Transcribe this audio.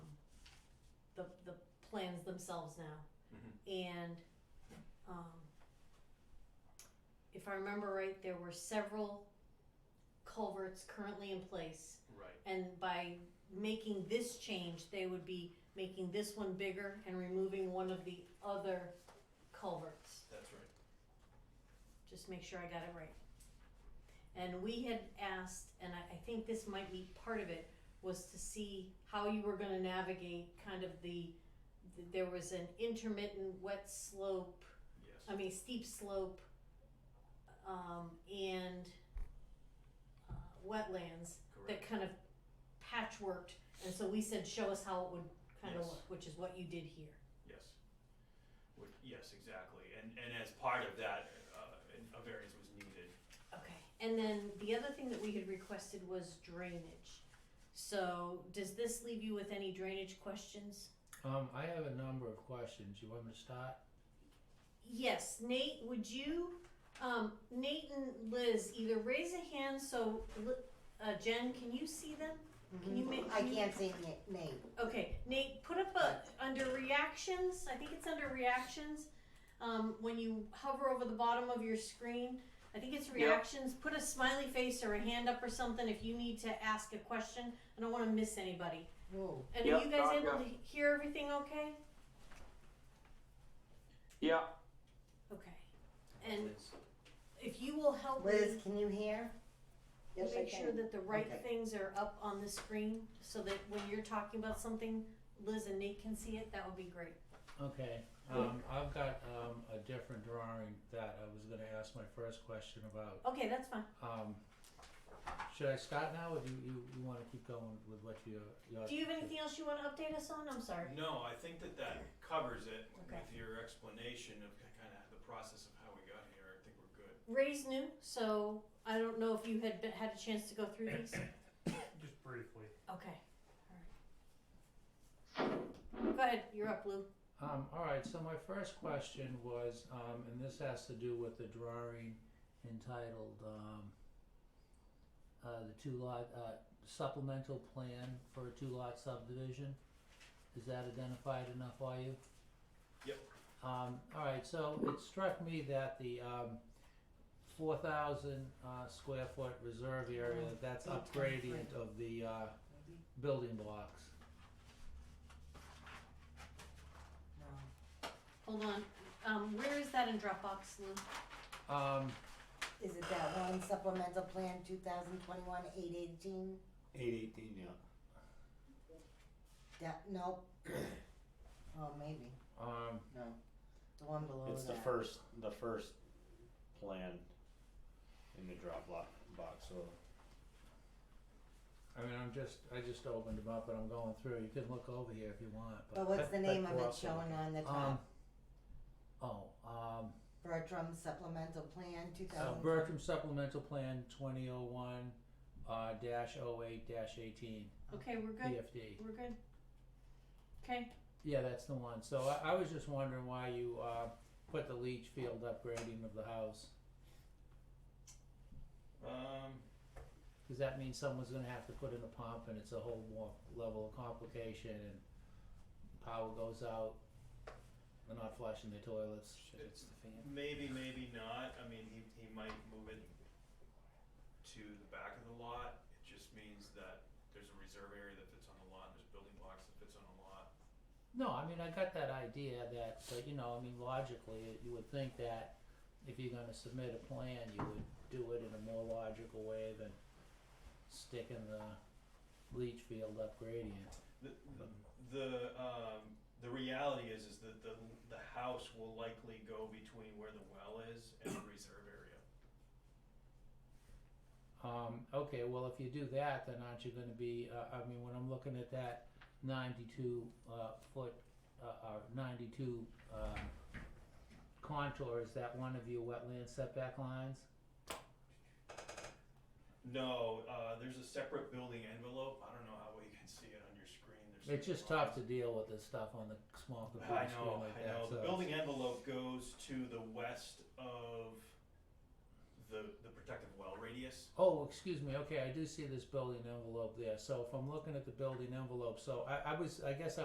the, the plans themselves now. Mhm. And, um, if I remember right, there were several culverts currently in place. Right. And by making this change, they would be making this one bigger and removing one of the other culverts. That's right. Just make sure I got it right. And we had asked, and I, I think this might be part of it, was to see how you were gonna navigate kind of the, th- there was an intermittent wet slope, I Yes. mean steep slope, um, and uh, wetlands that Correct. kind of patchworked, and so we said, show us how it would kind of Yes. look, which is what you did here. Yes. Which, yes, exactly. And and as part of that, uh, an- a variance was needed. Okay. And then the other thing that we had requested was drainage. So does this leave you with any drainage questions? Um, I have a number of questions. You want me to start? Yes, Nate, would you, um, Nate and Liz, either raise a hand so, Li- uh, Jen, can you see them? Can you make- I can't see it, Nate. Okay, Nate, put up a, under reactions, I think it's under reactions, um, when you hover over the bottom of your screen, I think it's reactions, put a smiley face or a hand up or something if you need to ask a question, I don't wanna miss anybody. Whoa. And are Yep, you guys I've able got- to hear everything okay? Yeah, Okay, and if you will help me Liz, can you hear? make sure that the right Okay. things are up on the screen, so that when you're talking about something, Liz and Nate can see it, that would be great. Okay. Um, I've got um, a different drawing that I was going to ask my first question about. Okay, that's fine. Um, should I start now, or do you, you, you want to keep going with what you? your Do you have anything else you wanna update us on? I'm sorry. No, I think that that covers it Okay. with your explanation of kind of the process of how we got here. I think we're good. Ray's new, so I don't know if you had been, had a chance to go through these. Just briefly. Okay, alright. Go ahead, you're up, Lou. Um, all right. So my first question was, um, and this has to do with the drawing entitled um, uh, the two lot uh, supplemental plan for a two lot subdivision. Is that identified enough? Are you? Yep. Um, all right. So it struck me that the um, four thousand uh, square foot reserve area that's Eight times up gradient of the uh, building blocks. No. Hold on, um, where is that in Dropbox, Lou? Um, Is it that one supplemental plan, two thousand twenty-one, eight eighteen? Eight eighteen, yeah. That, nope. Oh, maybe, um, no. The one below that. It's the first, the first plan in the drop block box, so. I mean, I'm just, I just opened them up and I'm going through. You can look over here if you want. But what's the name of go it up there. showing on the Um, top? oh, um, Bertram supplemental plan, two uh, thousand. Bertram Supplemental Plan 2001 uh, dash 08 dash 18 Okay, we're good, PFD. we're good. Okay, Yeah, that's the one. So I, I was just wondering why you uh, put the leach field upgrading of the house. Um, Because that means someone's going to have to put in a pump and it's a whole more level of complication and power goes out. They're not flushing their toilets. Shit, it's maybe, maybe not. I mean, he, he might move it to the back of the lot. It just means that there's a reserve area that fits on the lot, and there's building blocks that fits on the lot. No, I mean, I got that idea that, but you know, I mean, logically, you would think that if you're gonna submit a plan, you would do it in a more logical way than sticking the leach field up gradient. The, the, um, the reality is, is that the, the house will likely go between where the well is and the reserve area. Um, okay, well, if you do that, then aren't you gonna be, uh, I mean, when I'm looking at that ninety-two, uh, foot, uh, uh, ninety-two, um, contour, is that one of your wetland setback lines? No, uh, there's a separate building envelope. I don't know how well you can see it on your screen. There's It's just tough to deal with this stuff on the small computer I screen know, like I that, know. The so- building envelope goes to the west of the, the protective well radius. Oh, excuse me. Okay, I do see this building envelope there. So if I'm looking at the building envelope, so I, I was, I guess I